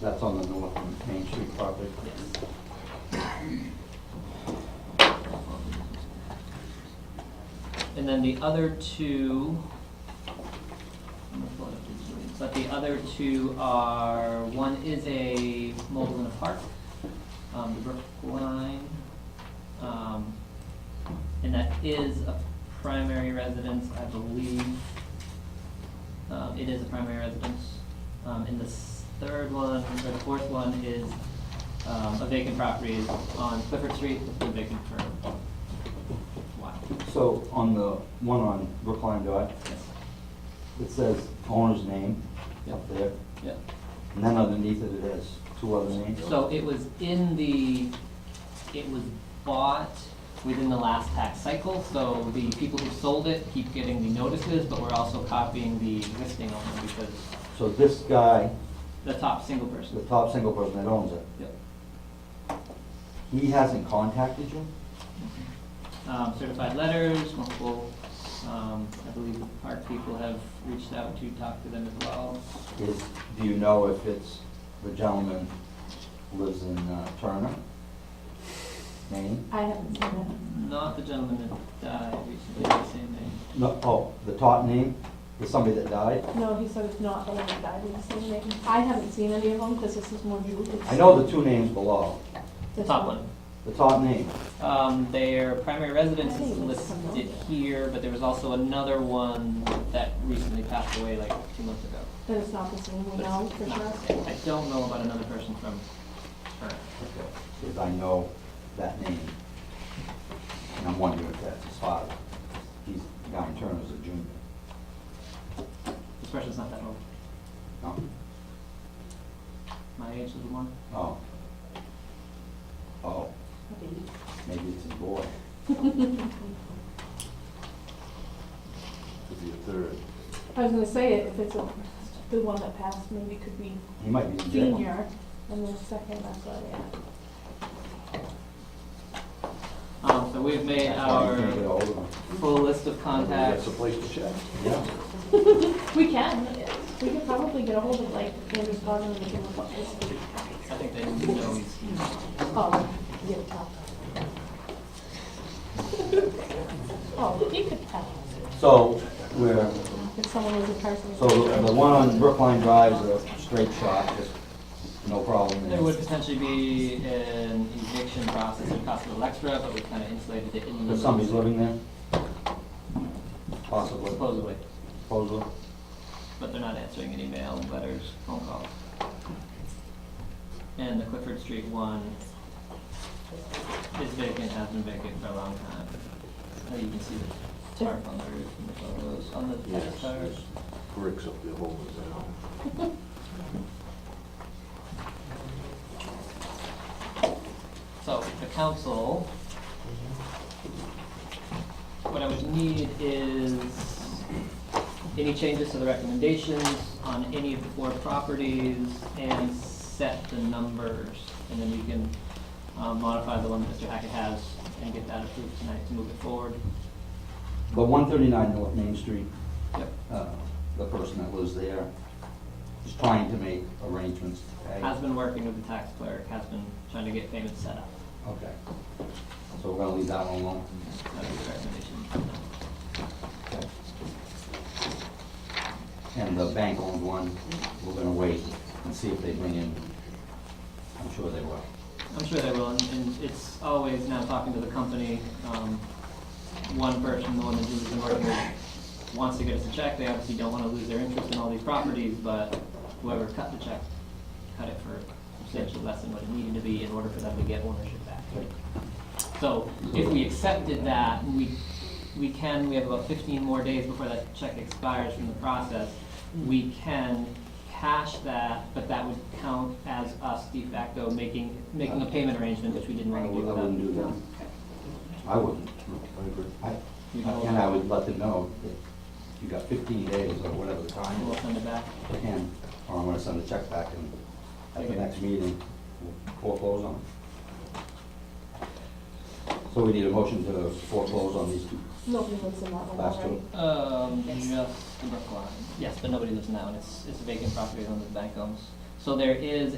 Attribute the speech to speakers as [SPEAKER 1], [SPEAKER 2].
[SPEAKER 1] That's on the north Main Street property.
[SPEAKER 2] And then the other two, I'm gonna pull it up digitally. but the other two are, one is a mobile in a park, um, the Brookline, um, and that is a primary residence, I believe. Um, it is a primary residence. Um, and the s- third one, or the fourth one is, um, a vacant property on Clifford Street, it's been vacant for a while.
[SPEAKER 1] So on the one on Brookline Drive, it says owner's name up there,
[SPEAKER 2] Yeah,
[SPEAKER 1] and then underneath it, it has two other names.
[SPEAKER 2] so it was in the, it was bought within the last tax cycle, so the people who sold it keep getting the notices, but we're also copying the existing owner because
[SPEAKER 1] So this guy,
[SPEAKER 2] the top single
[SPEAKER 1] the
[SPEAKER 2] person.
[SPEAKER 1] top single person that owns it,
[SPEAKER 2] Yep.
[SPEAKER 1] he hasn't contacted you?
[SPEAKER 2] Um, certified letters, multiple, um, I believe the park people have reached out to talk to them as well.
[SPEAKER 1] Is, do you know if it's, the gentleman lives in uh, Turner, Maine?
[SPEAKER 3] I haven't seen it.
[SPEAKER 2] Not the gentleman that died recently, the same name.
[SPEAKER 1] No, oh, the top name is somebody that died?
[SPEAKER 3] No, he said it's not the one that died with the same name. I haven't seen any of them because this is more new. It's
[SPEAKER 1] I know the two names below,
[SPEAKER 2] The
[SPEAKER 3] this
[SPEAKER 2] top one.
[SPEAKER 1] the top name,
[SPEAKER 2] Um, their primary residence
[SPEAKER 3] I
[SPEAKER 2] is
[SPEAKER 3] think it's
[SPEAKER 2] listed here, but there was also another one that recently passed away like two months ago.
[SPEAKER 3] Then it's not the same, we
[SPEAKER 2] But
[SPEAKER 3] know
[SPEAKER 2] it's
[SPEAKER 3] for
[SPEAKER 2] not the
[SPEAKER 3] sure.
[SPEAKER 2] same. I don't know about another person from Turner.
[SPEAKER 1] because I know that name. And I'm wondering if that's his father. He's, the guy in Turner's a junior.
[SPEAKER 2] This person's not that old.
[SPEAKER 1] No?
[SPEAKER 2] My age is one.
[SPEAKER 1] Oh. Oh, maybe it's his boy.
[SPEAKER 4] Could be a third.
[SPEAKER 3] I was gonna say, if it's a- the one that passed, maybe it could be
[SPEAKER 1] He might be in jail.
[SPEAKER 3] junior and then second, that's why, yeah.
[SPEAKER 2] Um, so we've made
[SPEAKER 1] That's why you can't get
[SPEAKER 2] our
[SPEAKER 1] hold of him.
[SPEAKER 2] full list of
[SPEAKER 4] That's
[SPEAKER 2] contacts.
[SPEAKER 4] a place to check.
[SPEAKER 1] Yeah.
[SPEAKER 3] We can, we could probably get a hold of like Andrew's father and give him a this.
[SPEAKER 2] I think they know he's,
[SPEAKER 3] Oh, you can tell. Oh, you could tell.
[SPEAKER 1] So, we're,
[SPEAKER 3] If someone was a person.
[SPEAKER 1] so the the one on Brookline Drive is a straight shot, just no problem.
[SPEAKER 2] there would potentially be an eviction process in Casa del Extra, but we've kind of insulated it in.
[SPEAKER 1] But somebody's living there? Possibly,
[SPEAKER 2] Supposedly,
[SPEAKER 1] supposedly.
[SPEAKER 2] but they're not answering any mail, letters, phone calls. And the Clifford Street one is vacant, has been vacant for a long time. Oh, you can see the tarp on the roof and the photos on the
[SPEAKER 4] Yes,
[SPEAKER 2] tax
[SPEAKER 4] there's bricks up there holding it down.
[SPEAKER 2] So the council, what I would need is any changes to the recommendations on any of the four properties and set the numbers. And then you can um, modify the one that Mr. Hackett has and get that approved tonight to move it forward.
[SPEAKER 1] But one thirty-nine North Main Street,
[SPEAKER 2] Yep.
[SPEAKER 1] uh, the person that lives there is trying to make arrangements to pay.
[SPEAKER 2] Has been working with the tax clerk, has been trying to get payments set up.
[SPEAKER 1] Okay. So we're gonna leave that one alone.
[SPEAKER 2] That would be the recommendation.
[SPEAKER 1] Okay. And the bank owned one, we're gonna wait and see if they bring in, I'm sure they will.
[SPEAKER 2] I'm sure they will, and, and it's always now talking to the company, um, one person, the one that Julie's been working with, wants to get us a check, they obviously don't wanna lose their interest in all these properties, but whoever cut the check, cut it for substantially less than what it needed to be in order for them to get ownership back. So, if we accepted that, we, we can, we have about fifteen more days before that check expires from the process, we can cash that, but that would count as us de facto making, making a payment arrangement, which we didn't
[SPEAKER 1] I
[SPEAKER 2] wanna do
[SPEAKER 1] wou- I
[SPEAKER 2] without.
[SPEAKER 1] wouldn't do that. I wouldn't.
[SPEAKER 4] I agree.
[SPEAKER 1] I,
[SPEAKER 2] You know-
[SPEAKER 1] and I would let them know that you got fifteen days or whatever the time
[SPEAKER 2] We'll
[SPEAKER 1] is.
[SPEAKER 2] send it back.
[SPEAKER 1] And, or I'm gonna send a check back and at the
[SPEAKER 2] Okay.
[SPEAKER 1] next meeting, we'll foreclose on it. So we need a motion to foreclose on these two.
[SPEAKER 3] Nobody lives in that one
[SPEAKER 1] Last
[SPEAKER 3] already.
[SPEAKER 1] one.
[SPEAKER 2] Um,
[SPEAKER 3] Yes.
[SPEAKER 2] just the Brookline. Yes, but nobody lives now, and it's, it's a vacant property owned by the bank owns. So there is